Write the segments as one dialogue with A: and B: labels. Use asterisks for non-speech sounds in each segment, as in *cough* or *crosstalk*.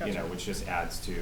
A: you know,
B: Gotcha.
A: which just adds to the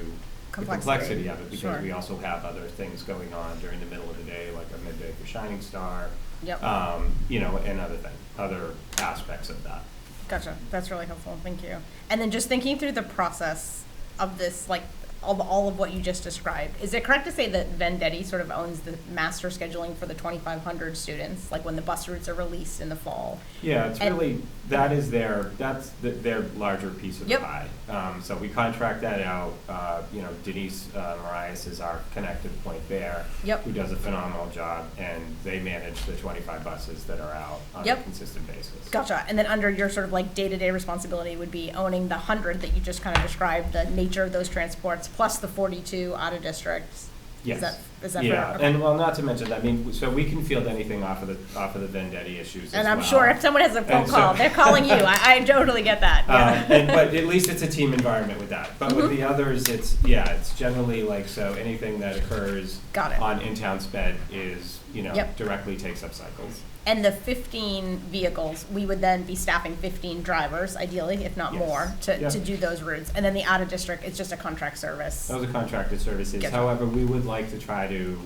B: Complexity.
A: complexity of it, because
B: Sure.
A: we also have other things going on during the middle of the day, like a midday for Shining Star.
B: Yep.
A: Um, you know, and other thing, other aspects of that.
B: Gotcha. That's really helpful. Thank you. And then just thinking through the process of this, like of all of what you just described, is it correct to say that Vendetti sort of owns the master scheduling for the 2,500 students, like when the bus routes are released in the fall?
A: Yeah, it's
B: And-
A: really, that is their, that's the- their larger piece of the
B: Yep.
A: pie. Um, so we contract that out, uh, you know, Denise uh, Marias is our connected point there.
B: Yep.
A: Who does a phenomenal job, and they manage the twenty-five buses that are out on a
B: Yep.
A: consistent basis.
B: Gotcha. And then under your sort of like day to day responsibility would be owning the 100 that you just kind of described, the nature of those transports, plus the 42 out of districts.
A: Yes.
B: Is that, is that
A: Yeah,
B: fair? Okay.
A: and well, not to mention, I mean, so we can field anything off of the, off of the Vendetti issues as
B: And I'm
A: well.
B: sure if someone has a phone
A: And so-
B: call, they're calling
A: *laughs*
B: you. I, I totally get that. Yeah.
A: Um, and, but at least it's a team environment with that. But
B: Mm-hmm.
A: with the others, it's yeah, it's generally like so. Anything that occurs
B: Got it.
A: on in-town sped is you know
B: Yep.
A: directly takes up cycles.
B: And the 15 vehicles, we would then be staffing 15 drivers, ideally, if not
A: Yes.
B: more, to,
A: Yeah. Oh.
B: to do those routes. And then the out of district, it's just a contract service.
A: Those are contracted services.
B: Gotcha.
A: However, we would like to try to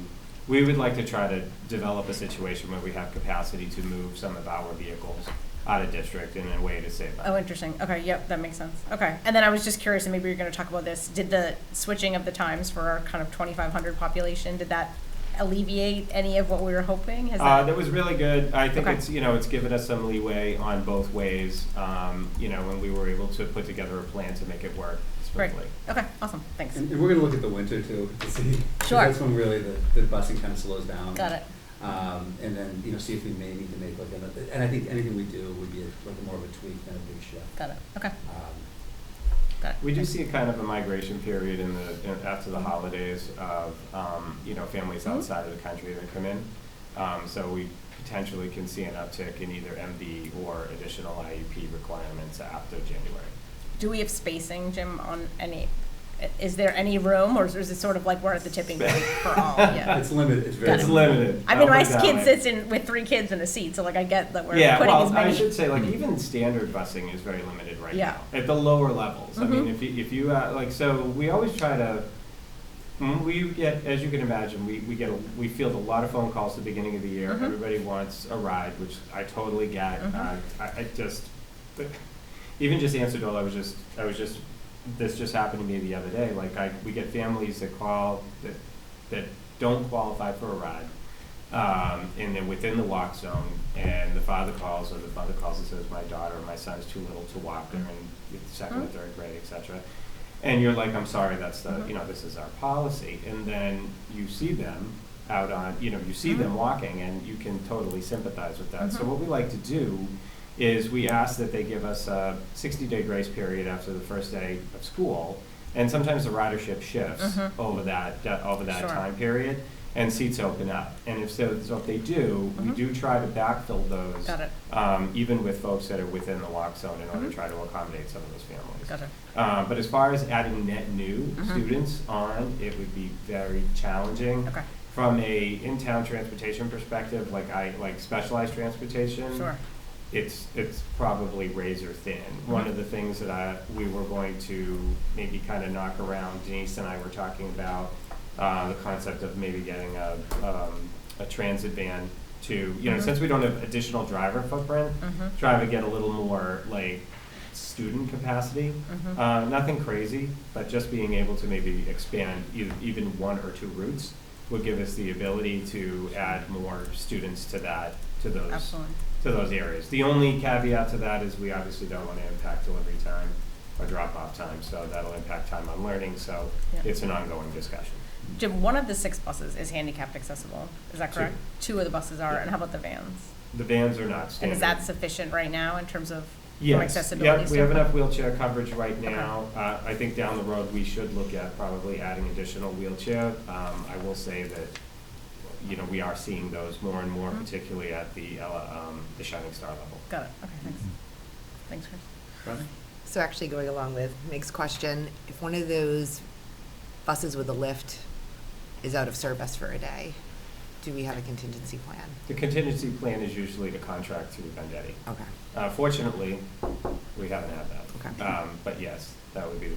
A: we would like to try to develop a situation where we have capacity to move some of our vehicles out of district in a way to save. money.
B: Oh, interesting. Okay, yep, that makes sense. Okay. And then I was just curious, and maybe you're going to talk about this. Did the switching of the times for our kind of 2,500 population, did that alleviate any of what we were hoping? Has
A: Uh,
B: that-
A: that was really good. I think
B: Okay.
A: it's, you know, it's given us some leeway on both ways, um, you know, when we were able to put together a plan to make it work
B: Great.
A: smoothly.
B: Okay, awesome. Thanks.
A: Mm-hmm.
C: And, and we're going to look at the winter too to see. 'cause
B: Sure.
C: That's when really the, the busing kind of slows down.
B: Got it.
C: Um, and then, you know, see if we may need to make like another, and I think anything we do would be a- like more of a tweak than a big shift.
B: Got it. Okay,
C: Um,
B: got it.
A: We do see a kind of a migration period in the, in- after the holidays of, um, you know, families
B: Mhm.
A: outside of the country that come in. Um, so we potentially can see an uptick in either MD or additional IEP requirements after January.
B: Do we have spacing, Jim, on any, is there any room, or is is it sort of like we're at the tipping point
A: *laughs*
B: for all? Yeah.
C: It's limited, it's very.
B: Got it.
A: It's limited.
B: I mean,
A: I'll
B: my
A: put it that
B: kid
A: way.
B: sits in with three kids in a seat, so like I get that we're
A: yeah,
B: putting
A: well,
B: as
A: I
B: many. Mm-hmm.
A: should say, like even standard busing is very limited right
B: Yeah.
A: now at the lower levels. I mean,
B: Mhm.
A: if you, if you uh, like, so we always try to. when We get, as you can imagine, we, we get a, we field a lot of phone calls at the beginning of the year.
B: Mhm.
A: Everybody wants a ride, which I totally get.
B: Mhm.
A: Uh, I, I just even just answered all. I was just I was just this just happened to me the other day. Like I we get families that call that that don't qualify for a ride um, and they're within the walk zone, and the father calls or the mother calls and says, "My daughter or my son's too little to walk. They're in 2nd or
B: Mhm.
A: third grade, etc." And you're like, "I'm sorry, that's the
B: Mhm.
A: you know this is our policy." And then you see them out on you know you see them
B: Mhm.
A: walking, and you can totally sympathize with that. So
B: Mhm.
A: what we like to do is we ask that they give us a 60-day grace period after the first day of school, and sometimes the ridership shifts
B: Mhm.
A: over that that- over that
B: Sure.
A: time period and seats open up. And if so, so if they do, we
B: Mhm.
A: do try to backfill those.
B: Got it.
A: Um, even with folks that are within the walk zone in order
B: Mhm.
A: to try to accommodate some of those families.
B: Got it.
A: Um, but as far as adding net new
B: Mhm.
A: students on, it would be very challenging.
B: Okay.
A: From a in-town transportation perspective, like I, like specialized transportation
B: Sure.
A: it's it's probably razor thin. One of the things that I we were going to maybe kind of knock around, Denise and I were talking about uh, the concept of maybe getting a um, a transit van to you know
B: Mhm.
A: since we don't have additional driver footprint,
B: Mhm.
A: try to get a little more like student capacity.
B: Mhm.
A: Uh, nothing crazy, but just being able to maybe expand e- even one or two routes would give us the ability to add more students to that to those
B: Absolutely.
A: to those areas. The only caveat to that is we obviously don't want to impact delivery time or drop-off time, so that'll impact time on learning, so
B: Yeah.
A: it's an ongoing discussion.
B: Jim, one of the six buses is handicapped accessible. Is that
A: Two.
B: correct? Two of the buses are,
A: Yeah.
B: and how about the vans?
A: The vans are not
B: And
A: standard.
B: is that sufficient right now in terms of from
A: Yes,
B: accessibility?
A: yep, we have
B: standpoint?
A: enough wheelchair coverage right
B: Okay.
A: now. Uh, I think down the road, we should look at probably adding additional wheelchair. Um, I will say that, you know, we are seeing those more and more,
B: Mhm.
A: particularly at the, uh, um, the Shining Star level.
B: Got it. Okay, thanks. Thanks, Chris.
C: Right?
D: So actually going along with Meg's question, if one of those buses with a lift is out of service for a day, do we have a contingency plan?
A: The contingency plan is usually to contract through Vendetti.
D: Okay.
A: Uh, Fortunately, we haven't had that.
D: Okay.
A: Um, But yes, that would be the